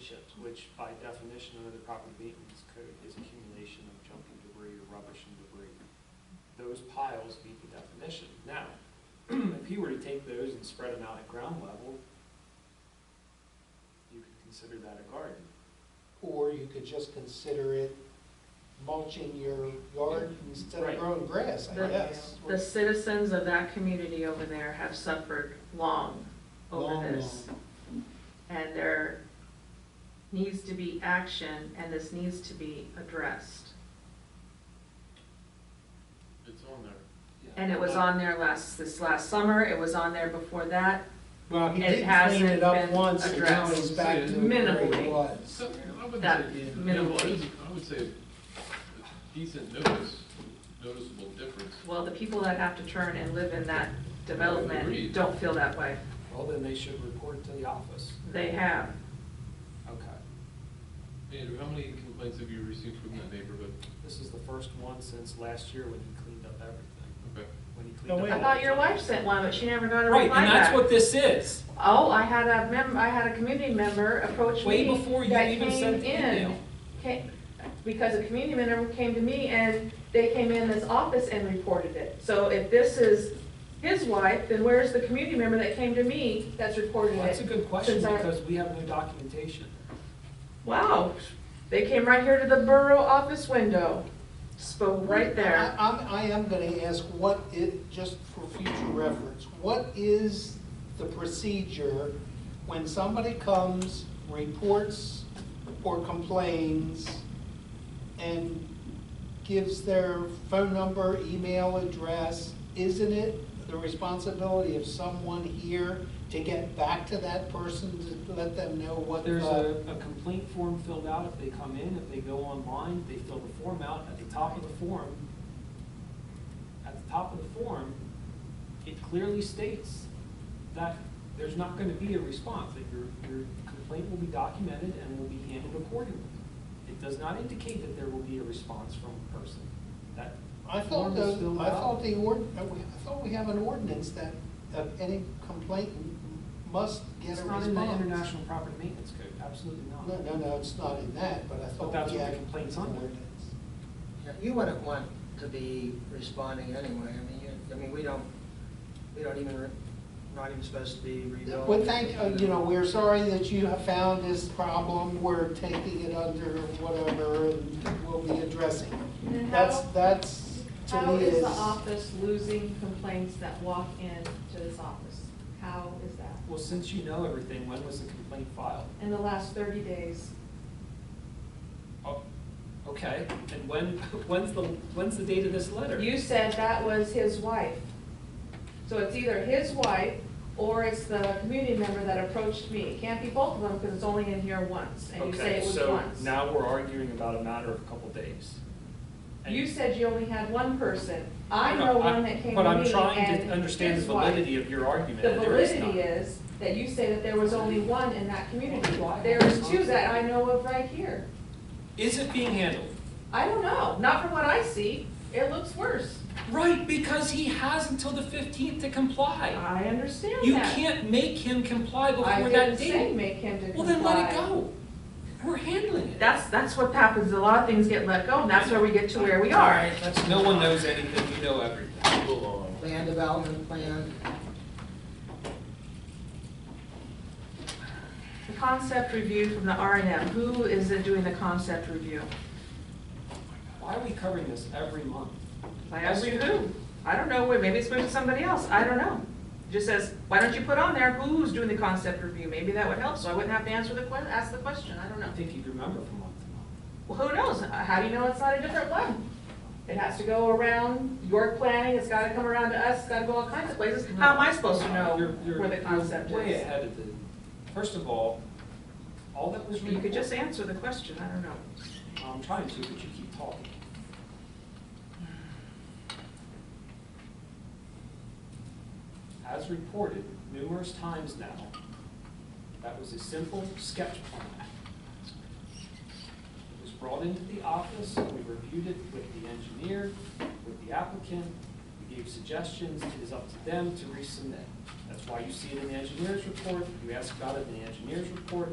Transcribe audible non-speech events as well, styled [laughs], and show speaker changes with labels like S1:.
S1: chips, which by definition under the property maintenance code is accumulation of junk and debris or rubbish and debris. Those piles meet the definition. Now, [clears throat] if he were to take those and spread them out at ground level, you could consider that a garden.
S2: Or you could just consider it mulching your yard instead of
S1: Right.
S2: growing grass, I
S3: The-
S2: guess.
S3: The citizens of that community over there have suffered long
S2: Long,
S3: over this.
S2: long.
S3: And there needs to be action, and this needs to be addressed.
S4: It's on there.
S3: And it was on there last, this last summer, it was on there before that.
S2: Well, he did
S3: It
S2: clean it
S3: hasn't
S2: up
S3: been
S2: once, and now
S3: addressed.
S2: he's back to where
S3: Minimally.
S2: it was.
S4: So, I wouldn't
S3: That
S4: say,
S3: is
S4: minimal.
S3: minimal.
S4: I would- I would say a decent notice, noticeable difference.
S3: Well, the people that have to turn and live in that development
S4: Agreed.
S3: don't feel that way.
S1: Well, then they should report to the office.
S3: They have.
S1: Okay.
S4: Andrew, how many complaints have you received from that neighborhood?
S1: This is the first one since last year when he cleaned up everything.
S4: Okay.
S1: When he
S2: No,
S1: cleaned
S2: wait.
S1: up.
S3: I thought your wife sent one, but she never got a reply
S1: Right,
S3: back.
S1: and that's what this is.
S3: Oh, I had a mem, I had a community member approach me.
S1: Way before you
S3: that
S1: even
S3: came
S1: sent the
S3: in,
S1: email.
S3: ca- Because a community member came to me and they came in this office and reported it. So if this is his wife, then where's the community member that came to me that's reported
S1: Well, That's a
S3: it?
S1: good question
S3: Since I-
S1: because we have no documentation.
S3: Wow, they came right here to the borough office window, spoke right there.
S2: I, I'm- I am gonna ask what it, just for future reference, what is the procedure when somebody comes, reports or complains and gives their phone number, email address? Isn't it the responsibility of someone here to get back to that person to let them know what
S1: But
S2: the?
S1: there's a, a complaint form filled out if they come in, if they go online, they fill the form out. At the top of the form, at the top of the form, it clearly states that there's not gonna be a response, that your, your complaint will be documented and will be handled accordingly. It does not indicate that there will be a response from a person. That
S2: I
S1: form
S2: thought the,
S1: is filled
S2: I thought
S1: out.
S2: the ord, uh, we- I thought we have an ordinance that uh, any complainant must get
S1: It's
S2: a
S1: not
S2: response.
S1: in the International Property Maintenance Code, absolutely not.
S2: No, no, no, it's not in that, but I
S1: But
S2: thought.
S1: that's
S2: we
S1: what the
S2: had
S1: complaint's
S2: an
S1: under.
S2: ordinance.
S5: Yeah, You wouldn't want to be responding anyway, I mean, you, I mean, we don't, we don't even, re- not even supposed to be rebuilding.
S2: Well, thank, uh, you know, we're sorry that you have found this problem, we're taking it under whatever, and we'll be addressing it.
S3: And
S2: That's,
S3: how-
S2: that's, to me is,
S3: losing complaints that walk in to this office? How is that?
S1: Well, since you know everything, when was the complaint filed?
S3: In the last thirty days,
S1: Oh, okay, and when, [laughs] when's the, when's the date of this letter?
S3: You said that was his wife. So it's either his wife or it's the community member that approached me. It can't be both of them because it's only in here once and you say it was
S1: Okay,
S3: once.
S1: so now we're arguing about a matter of a couple days. And-
S3: You said you only had one person. I
S1: No,
S3: know
S1: I-
S3: one that came to me and his wife.
S1: But I'm trying to understand the validity of your argument,
S3: The
S1: and there is
S3: validity
S1: none.
S3: is that you say that there was only one in that community.
S1: Why?
S3: There is two that I know of right here.
S1: Is it being handled?
S3: I don't know, not from what I see. It looks worse.
S1: Right, because he has until the fifteenth to comply.
S3: I understand that.
S1: You can't make him comply
S3: I
S1: before
S3: didn't
S1: that
S3: say
S1: date.
S3: make him to comply.
S1: Well, then let it go. We're handling it.
S3: That's, that's what happens, a lot of things get let go, and that's where we get to where we are.
S1: That's- No one knows anything, you know everything.
S5: Land development plan,
S3: The Concept review from the R and M, who is it doing the concept review?
S1: Why are we covering this every month?
S3: I asked you who, I don't know, wait, maybe it's moved to somebody else, I don't know. It Just says, why don't you put on there who's doing the concept review, maybe that would help, so I wouldn't have to answer the que, ask the question, I don't know.
S1: I think you'd remember from month to month.
S3: Well, who knows, how do you know it's not a different one? It has to go around York Planning, it's gotta come around to us, it's gotta go all kinds of places, how am I supposed to know
S1: You're- you're-
S3: where the concept is?
S1: You're way ahead of the, first of all, all that was
S3: You
S1: reported.
S3: could just answer the question, I don't know.
S1: I'm trying to, but you keep talking. As reported numerous times now, that was a simple sketch plan. It was brought into the office, we reviewed it with the engineer, with the applicant, we gave suggestions, it is up to them to resubmit. That's why you see it in the engineer's report, you ask about it in the engineer's report,